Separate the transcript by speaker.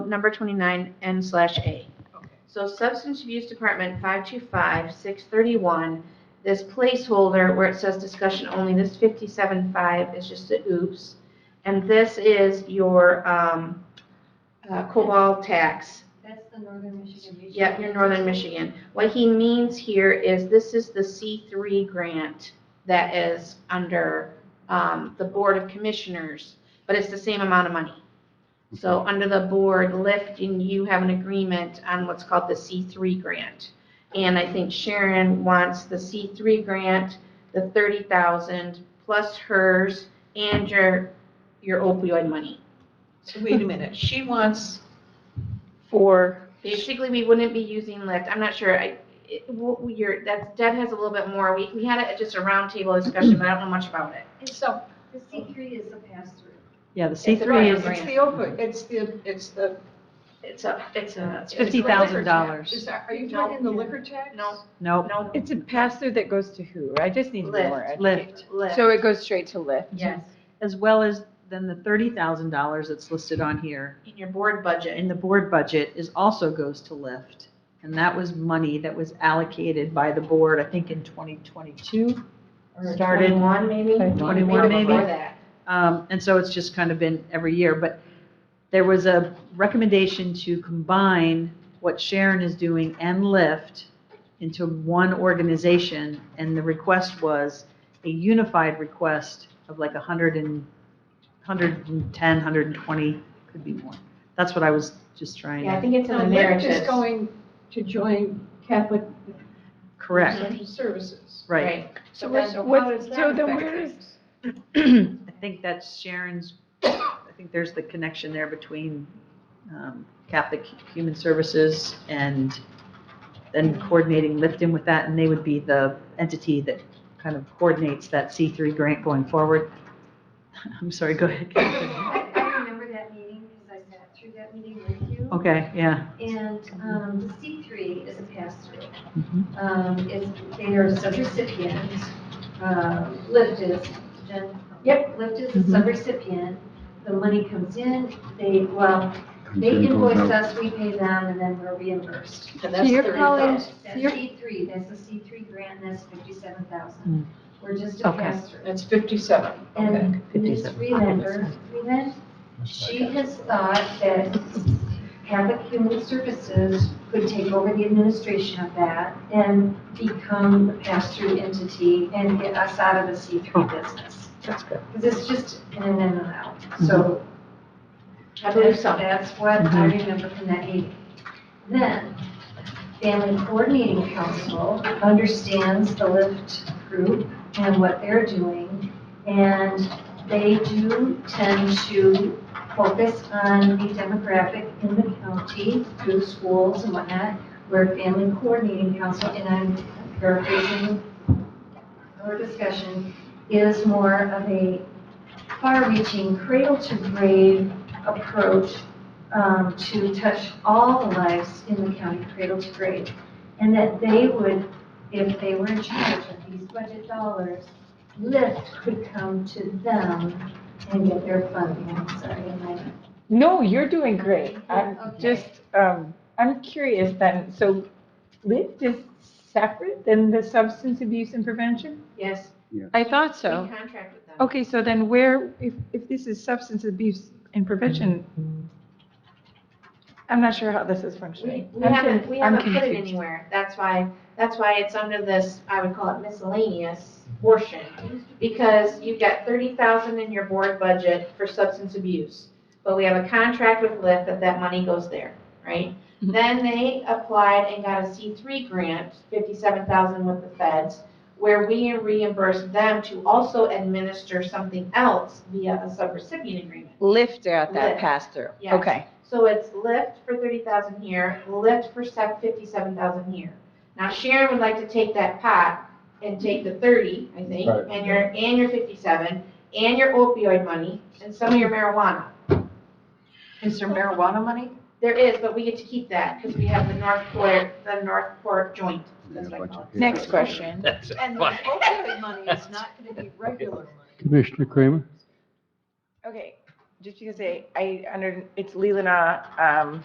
Speaker 1: number 29, N slash A.
Speaker 2: Okay.
Speaker 1: So Substance Abuse Department 525, 631, this placeholder where it says discussion only, this 57.5 is just the oops. And this is your um, uh, COBOL tax.
Speaker 3: That's the Northern Michigan Regional.
Speaker 1: Yeah, you're Northern Michigan. What he means here is this is the C3 grant that is under um, the Board of Commissioners, but it's the same amount of money. So under the board lift, and you have an agreement on what's called the C3 grant. And I think Sharon wants the C3 grant, the 30,000 plus hers and your, your opioid money.
Speaker 2: So wait a minute, she wants for,
Speaker 1: Basically, we wouldn't be using lift. I'm not sure, I, it, w- you're, that's, Deb has a little bit more. We, we had a, just a roundtable discussion, but I don't know much about it.
Speaker 2: so,
Speaker 3: The C three is a pass-through.
Speaker 4: Yeah, the
Speaker 1: It's
Speaker 4: C3
Speaker 1: Three
Speaker 2: right,
Speaker 1: is
Speaker 2: it's
Speaker 1: grant.
Speaker 2: the opioid, it's the, it's the.
Speaker 1: It's a, it's a.
Speaker 2: it's the
Speaker 4: Fifty thousand
Speaker 2: liquor tax.
Speaker 4: dollars.
Speaker 2: Is that, are you
Speaker 1: No.
Speaker 2: talking the liquor tax?
Speaker 1: No.
Speaker 4: nope,
Speaker 1: No,
Speaker 5: It's a pass-through that goes to who? I just need more.
Speaker 1: Lyft.
Speaker 4: lift,
Speaker 1: lift.
Speaker 5: So it goes straight to Lyft?
Speaker 1: Yes,
Speaker 4: as well as then the $30,000 that's listed on here
Speaker 1: in your board budget.
Speaker 4: in the board budget is also goes to lift. And that was money that was allocated by the board, I think in 2022.
Speaker 1: Or
Speaker 4: Started-
Speaker 1: Twenty-one maybe?
Speaker 4: 21
Speaker 1: Before
Speaker 4: maybe.
Speaker 1: that.
Speaker 4: Um, And so it's just kind of been every year, but there was a recommendation to combine what Sharon is doing and Lyft into one organization, and the request was a unified request of like 100 and, 110, 120, could be more. That's what I was just trying
Speaker 1: Yeah, I
Speaker 4: to
Speaker 1: think it's in
Speaker 2: So
Speaker 1: the
Speaker 2: Lyft
Speaker 1: narratives.
Speaker 2: is going to join Catholic
Speaker 4: correct,
Speaker 2: Social Services.
Speaker 4: right.
Speaker 2: So
Speaker 5: What-
Speaker 2: then, so
Speaker 5: what-
Speaker 2: how does that
Speaker 5: so then
Speaker 2: affect
Speaker 5: where is-
Speaker 2: things?
Speaker 4: I think that's Sharon's, I think there's the connection there between um, Catholic Human Services and then coordinating Lifton with that, and they would be the entity that kind of coordinates that C3 grant going forward. I'm sorry, go ahead. Catherine.
Speaker 3: I, I remember that meeting because I sat through that meeting with you.
Speaker 4: Okay, yeah.
Speaker 3: And, um, the C three is a pass-through.
Speaker 4: Mhm.
Speaker 3: Um, is, they are subrecipient, um, Lyft is, Jen?
Speaker 1: Yep.
Speaker 3: Lyft is
Speaker 4: Mhm.
Speaker 3: a subrecipient, the money comes in, they, well, they
Speaker 6: Okay, goes
Speaker 3: invoice
Speaker 6: out.
Speaker 3: us, we pay them, and then we're reimbursed.
Speaker 2: And that's
Speaker 5: you're
Speaker 2: thirty
Speaker 5: calling-
Speaker 2: thousand.
Speaker 3: That's
Speaker 5: You're-
Speaker 3: C three, that's the C three grant, and that's fifty-seven
Speaker 4: Mm.
Speaker 3: thousand. We're just a
Speaker 4: Okay.
Speaker 3: pass-through.
Speaker 2: That's fifty-seven, okay.
Speaker 3: And Ms.
Speaker 4: 57.
Speaker 3: Freelander, Freeland, she has thought that Catholic Human Services could take over the administration of that and become the pass-through entity and get us out of the C three
Speaker 4: Oh.
Speaker 3: business.
Speaker 4: That's good. Mm-hmm.
Speaker 3: Because it's just in and in and out, so.
Speaker 1: I believe so.
Speaker 3: That's what I remember from that meeting. Then, Family Coordinating Council understands the LIFT group and what they're doing, and they do tend to focus on the demographic in the county through schools and whatnot, where Family Coordinating Council, and I'm paraphrasing our discussion, is more of a far-reaching, cradle-to-grave approach um, to touch all the lives in the county, cradle to grave. And that they would, if they were in charge of these budget dollars, Lyft could come to them and get their funding. I'm sorry, am I?
Speaker 5: No, you're doing great. I'm
Speaker 3: Okay.
Speaker 5: just, um, I'm curious then, so Lyft is separate than the substance abuse and prevention?
Speaker 1: Yes,
Speaker 5: I thought
Speaker 1: we
Speaker 5: so.
Speaker 1: contract with them.
Speaker 5: Okay, so then where, if, if this is substance abuse and prevention, I'm not sure how this is
Speaker 1: We
Speaker 5: functioning.
Speaker 1: we
Speaker 5: I'm
Speaker 1: haven't,
Speaker 5: con-
Speaker 1: we
Speaker 5: I'm
Speaker 1: haven't put it
Speaker 5: confused.
Speaker 1: anywhere. That's why, that's why it's under this, I would call it miscellaneous portion. Because you've got thirty thousand in your board budget for substance abuse. But we have a contract with Lyft that that money goes there, right?
Speaker 5: Mhm.
Speaker 1: Then they applied and got a C three grant, fifty-seven thousand with the feds, where we reimbursed them to also administer something else via a subrecipient agreement.
Speaker 5: Lyft at
Speaker 1: that Lyft.
Speaker 5: pass-through.
Speaker 1: Yes. So it's lift for thirty thousand here, lift for fifty-seven thousand here. Now Sharon would like to take that pot and take the thirty, I think,
Speaker 6: Right.
Speaker 1: and your, and your fifty-seven, and your opioid money, and some of your marijuana.
Speaker 2: Is there marijuana money?
Speaker 1: There is, but we get to keep that, because we have the Northport, the Northport joint, that's what I call it.
Speaker 5: Next question.
Speaker 2: And the opioid money is not going to be regular money.
Speaker 6: Commissioner Kramer?
Speaker 5: Okay, just because I, I under, it's Leland, uh, um,